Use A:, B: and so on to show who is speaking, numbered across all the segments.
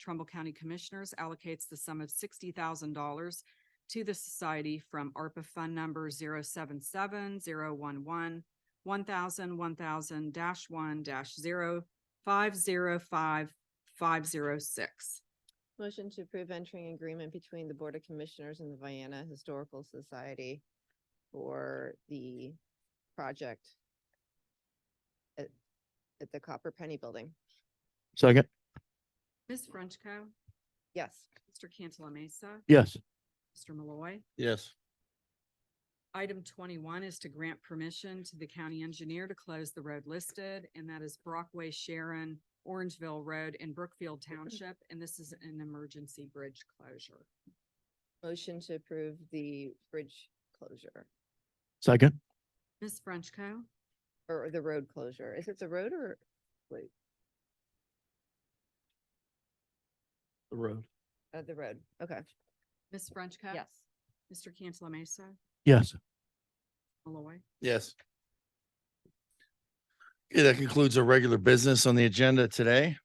A: Trumbull County Commissioners allocates the sum of sixty thousand dollars to the society from ARPA Fund Number zero seven seven zero one one one thousand one thousand dash one dash zero five zero five five zero six.
B: Motion to approve entering agreement between the Board of Commissioners and the Vienna Historical Society for the project at, at the Copper Penny Building.
C: Second,
A: Ms. Frenchco.
B: Yes.
A: Mr. Cantala Mesa.
C: yes.
A: Mr. Malloy.
C: Yes.
A: Item twenty-one is to grant permission to the county engineer to close the road listed, and that is Brockway Sharon, Orangeville Road in Brookfield Township, and this is an emergency bridge closure.
B: Motion to approve the bridge closure
C: Second,
A: Ms. Frenchco.
B: or the road closure. Is it the road or? Wait,
C: the road.
B: uh, the road. Okay.
A: Ms. Frenchco. Mr. Cantala Mesa.
C: Yes.
A: Malloy.
D: Yes. Okay, that concludes our regular business on the agenda today.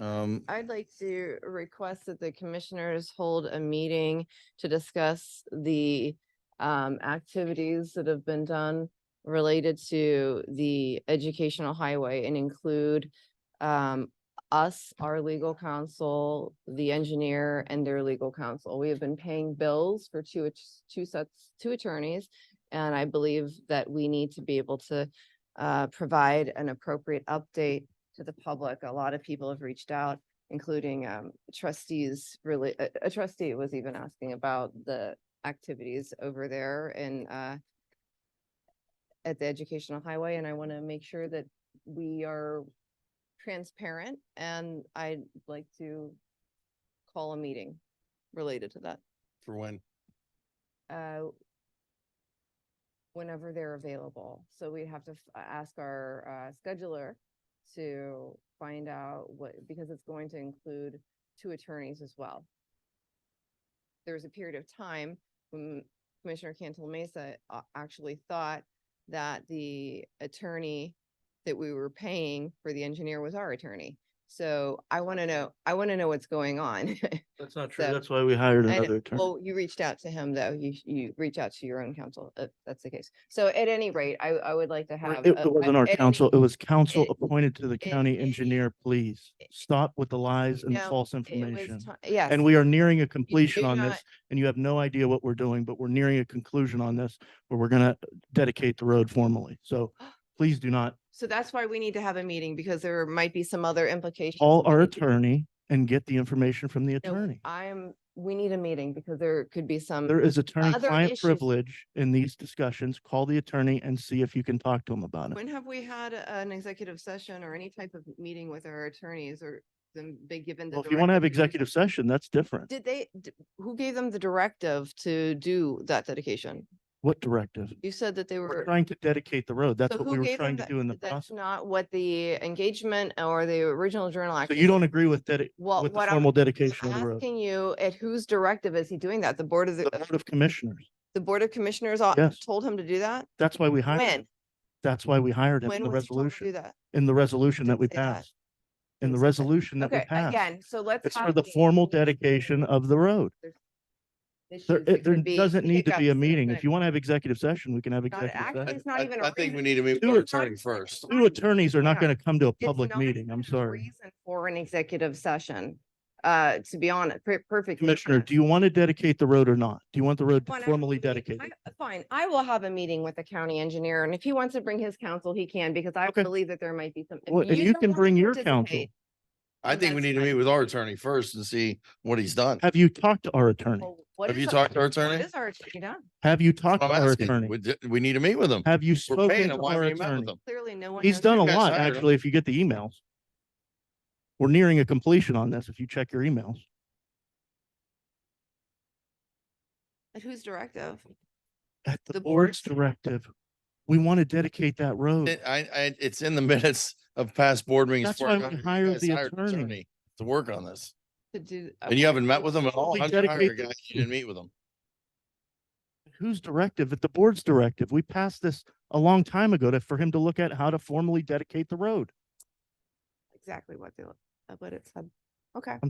D: Um,
B: I'd like to request that the commissioners hold a meeting to discuss the um, activities that have been done related to the educational highway and include um, us, our legal counsel, the engineer and their legal counsel. We have been paying bills for two, att- two sets, two attorneys. And I believe that we need to be able to uh, provide an appropriate update to the public. A lot of people have reached out, including um, trustees, really, a a trustee was even asking about the activities over there and uh, at the educational highway, and I want to make sure that we are transparent, and I'd like to call a meeting related to that,
D: for when,
B: uh, whenever they're available. So we'd have to f- uh, ask our uh, scheduler to find out what, because it's going to include two attorneys as well. There was a period of time when Commissioner Cantal Mesa uh, actually thought that the attorney that we were paying for the engineer was our attorney. So I want to know, I want to know what's going on.
C: That's not
B: So-
C: That's why we hired
B: I know-
C: another attorney.
B: Well, you reached out to him, though. You, you reach out to your own counsel. if that's the case. So at any rate, I, I would like to have.
C: It
B: a-
C: it wasn't
B: a-
C: our
B: at any-
C: council. It was council
B: it-
C: appointed to the county
B: it-
C: engineer, please. Stop with the lies and the
B: No,
C: false
B: it was
C: information.
B: ti- Yes.
C: And we are nearing a
B: You
C: completion
B: do
C: on
B: not-
C: this and you have no idea what we're doing, but we're nearing a conclusion on this where we're gonna dedicate the road formally. So please do not
B: So that's why we need to have a meeting because there might be some other implications.
C: call our
B: We-
C: attorney and get the information from the
B: no,
C: attorney.
B: I'm, we need a meeting because there could be some.
C: There is attorney-client
B: issues-
C: privilege in these discussions. Call the attorney and see if you can talk to him about it.
B: When have we had a- an executive session or any type of meeting with our attorneys or them, they given? the
C: Well, if you want to have
B: directive do
C: executive session, that's different.
B: something? Did they, d- who gave them the directive to do that dedication?
C: What directive?
B: You said that they
C: We're
B: were.
C: trying to dedicate the road. That's
B: So
C: what
B: who
C: we were
B: gave them
C: trying to
B: that-
C: do in the
B: That's
C: process.
B: not what the engagement or the original journal.
C: So
B: act
C: you don't agree with that,
B: Well,
C: with the
B: what I'm
C: formal
B: I'm
C: dedication of the road?
B: asking you, at whose directive is he doing that? The Board of,
C: The
B: the
C: Board of Commissioners.
B: the Board of Commissioners all-
C: Yes.
B: told him to do that?
C: That's why we hired
B: When?
C: him. That's why we hired him
B: When
C: in the
B: was he told to do
C: resolution,
B: that?
C: in the resolution
B: Didn't
C: that we
B: say that.
C: passed. In
B: Didn't
C: the
B: say that.
C: resolution that we
B: Okay,
C: passed.
B: again, so let's.
C: It's for
B: have
C: the
B: a
C: formal
B: meeting.
C: dedication of the road.
B: Issues
C: There,
B: that
C: it- there
B: could be
C: doesn't need to be a
B: hiccups.
C: meeting. If you want to have executive session, we can have
B: Not-
C: executive
B: actually,
C: session.
B: It's not
D: I-
B: even. a
D: I think we
B: reason-
D: need to meet with
C: Do
D: our
C: it.
D: attorney first.
C: Two attorneys are not
B: Yeah.
C: going to come to a
B: it's
C: public
B: not
C: meeting. I'm
B: even a
C: sorry.
B: reason For an executive session, uh, to be honest, per- perfectly.
C: Commissioner,
B: honest.
C: do you want to dedicate the road or not? Do you want the road
B: wanna have
C: formally
B: a meeting.
C: dedicated?
B: I- uh, Fine, I will have a meeting with the county engineer and if he wants to bring his counsel, he can, because I
C: Okay.
B: believe that there might be some. if
C: Well, and you
B: don't
C: can
B: wanna
C: bring your counsel.
B: participate,
D: I think we
B: That's
D: need to
B: fine.
D: meet with our attorney first and see what he's done.
C: Have you talked to our attorney?
B: well, what
D: Have
B: is
D: you
B: our-
D: talked to our
B: what
D: attorney?
B: Is our attorney done?
C: Have you talked to
D: I'm
C: our
D: asking, we,
C: attorney?
D: d- we need to meet with him.
C: Have you
D: We're
C: spoken
D: paying
C: to
D: him. Why
C: our
D: haven't we met
C: attorney?
D: with him?
B: Clearly, no one.
C: He's
B: knows
C: done a
B: who-
D: guys
C: lot,
D: hired him.
C: actually, if you get the emails. We're nearing a completion on this, if you check your emails.
B: At whose directive?
C: At the
B: The board's
C: board's directive, we want to dedicate that road.
D: It- I, I, it's in the minutes of past board meetings.
C: That's
D: where
C: why
D: you
C: we
D: guys
C: hired the
D: hired an
C: attorney.
D: To work on this.
B: To do.
D: And you haven't met with him at all?
C: We
D: How'd you hire a
C: dedicate
D: guy
C: the-
D: You didn't meet with him.
C: Whose directive? At the board's directive. We passed this a long time ago to, for him to look at how to formally dedicate the road.
B: Exactly uh, what they, what it said. Okay.